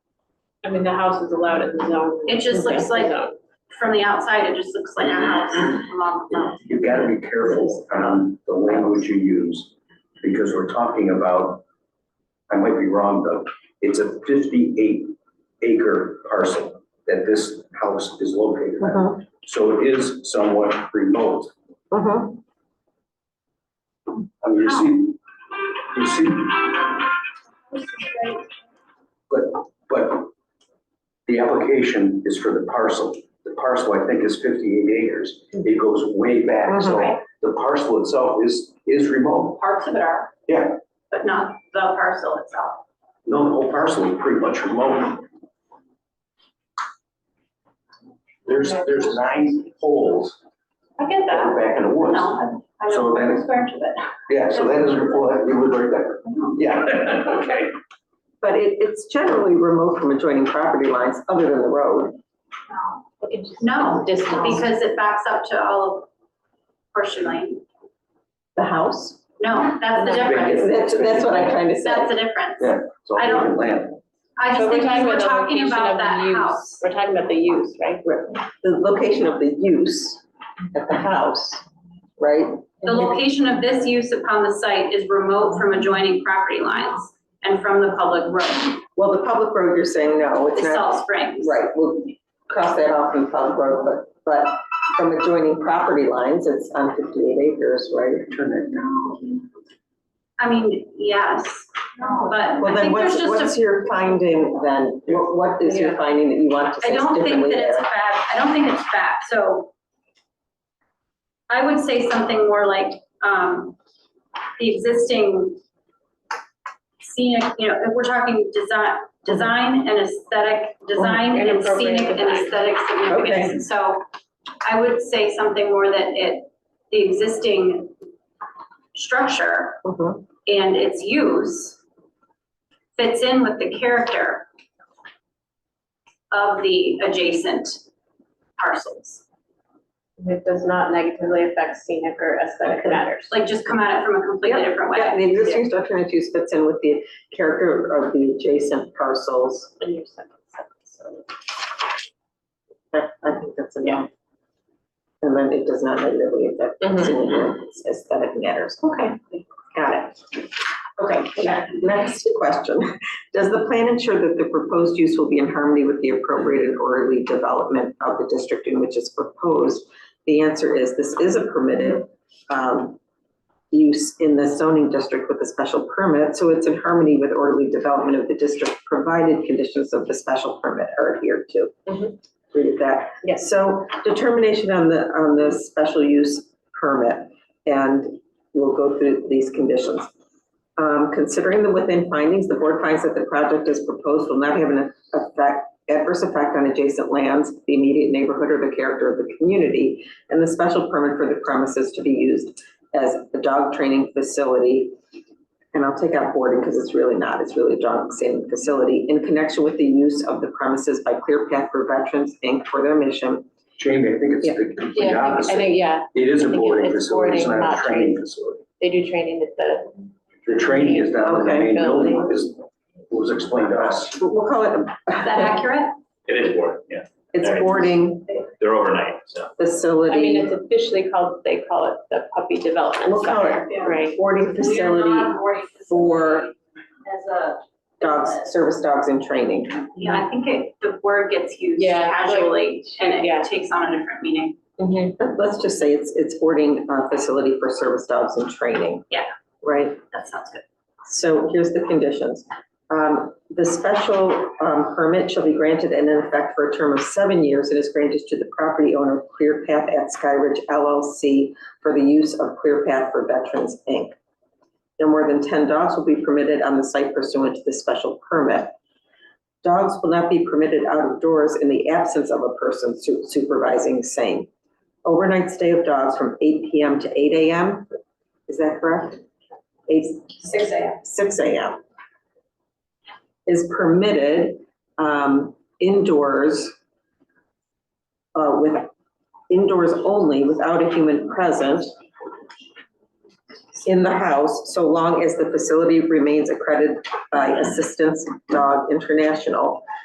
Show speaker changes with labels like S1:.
S1: I mean, the house is allowed in the zone.
S2: It just looks like- uh,
S1: Zone.
S2: From the outside, it just looks like a house along the road.
S3: You've got to be careful on the language you use, because we're talking about, I might be wrong though, it's a fifty-eight acre parcel that this house is located on.
S4: Mhm,
S3: So it is somewhat remote.
S4: mhm.
S3: I mean, you see, you see, But the application is for the parcel. The parcel, I think, is fifty-eight acres. It goes way back, so
S4: Mhm.
S3: the parcel itself is, is remote.
S2: Parts of it are.
S3: Yeah.
S2: But not the parcel itself.
S3: No, the whole parcel is pretty much remote. There's, there's nine holes
S2: I get
S3: that
S2: that.
S3: are back in the woods.
S2: No, I
S3: So
S2: would
S3: then-
S2: swear to it.
S3: Yeah, so that is, well, that- you live right there. Yeah, okay.
S4: But it, it's generally remote from adjoining property lines, other than the road.
S2: No. No, because it backs up to all of Horseshoe Lane.
S4: The house?
S2: No, that's the difference.
S4: That's, that's what I'm trying to say.
S2: That's the difference.
S3: Yeah. It's all
S2: I don't-
S3: vacant land.
S2: I just
S1: But
S2: think
S1: talking
S2: we're
S1: about the
S2: talking
S1: location
S2: about
S1: of the
S2: that
S1: use.
S2: house.
S1: We're talking about the use, right?
S4: The location of the use at the house, right?
S2: The location of this use upon the site is remote from adjoining property lines and from the public road.
S4: Well, the public road, you're saying no, it's
S2: It's
S4: not.
S2: Salt Springs.
S4: Right, we'll cross that off in public road, but, but from adjoining property lines, it's on fifty-eight acres, right?
S3: Turn it down.
S2: I mean, yes, but
S4: Well,
S2: I
S4: then
S2: think there's
S4: what's, what's
S2: just a,
S4: your finding then? What, what is your finding that you want to
S2: I
S4: say
S2: don't think
S4: differently
S2: that it's
S4: there?
S2: fact, I don't think it's fact, so I would say something more like, um, the existing scenic, you know, if we're talking design, design and aesthetic, design
S1: And
S2: and
S1: appropriate
S2: scenic and
S1: design.
S2: aesthetic significance. So I would say something more that it, the existing structure
S4: Mhm.
S2: and its use fits in with the character of the adjacent parcels.
S1: It does not negatively affect scenic or aesthetic matters.
S2: Like just come at it from a completely different
S4: Yeah,
S2: way.
S4: the existing structure and its use fits in with the character of the adjacent parcels.
S1: In your second sentence, so-
S4: I, I think that's enough. And then it does not negatively affect
S1: Mhm.
S4: significance, aesthetic matters. Mm-hmm, Okay, got it. Okay, ne- next question. Does the plan ensure that the proposed use will be in harmony with the appropriate and orderly development of the district in which it's proposed? The answer is this is a permitted um, use in the zoning district with a special permit, so it's in harmony with orderly development of the district, provided conditions of the special permit are adhered to.
S1: Mhm.
S4: Read that.
S1: Yes.
S4: So determination on the, on the special use permit, and we'll go through these conditions. Um, considering the within findings, the board finds that the project as proposed will not have an effect, adverse effect on adjacent lands, the immediate neighborhood, or the character of the community, and the special permit for the premises to be used as a dog training facility. And I'll take out boarding because it's really not, it's really a dog training facility in connection with the use of the premises by Clear Path for Veterans Inc. for their mission.
S3: Jamie, I think it's
S4: Yeah.
S3: the complete
S1: Yeah, I think- I
S3: opposite.
S1: think, yeah,
S3: It is a
S1: I think
S3: boarding
S1: it's
S3: facility, it's
S1: boarding,
S3: not a
S1: not
S3: training
S1: training.
S3: facility.
S1: they do training at the,
S3: The training is down in the
S4: Okay.
S3: main building, is, was explained to us.
S4: We'll- We'll call it,
S2: Is that
S4: a-
S2: accurate?
S5: It is board, yeah.
S4: it's boarding
S5: They're overnight, so.
S4: facility.
S1: I mean, it's officially called, they call it the puppy development
S4: We'll call it-
S1: center, right?
S4: boarding facility for
S2: As a.
S4: dogs, service dogs in training.
S2: Yeah, I think it, the word gets used
S1: Yeah, like-
S2: casually and
S1: yeah.
S2: it takes on a different meaning.
S1: Mhm.
S4: Let's just say it's, it's boarding uh, facility for service dogs in training.
S2: Yeah.
S4: Right?
S2: That sounds good.
S4: So here's the conditions. Um, The special um, permit shall be granted and in effect for a term of seven years and is granted to the property owner Clear Path at Skyridge LLC for the use of Clear Path for Veterans, Inc. No more than 10 dogs will be permitted on the site pursuant to the special permit. Dogs will not be permitted out of doors in the absence of a person su- supervising same. Overnight stay of dogs from 8 PM to 8 AM, is that correct? 8,
S2: Six AM.
S4: six AM is permitted um, indoors uh, with, indoors only, without a human present in the house, so long as the facility remains accredited by Assistance Dog International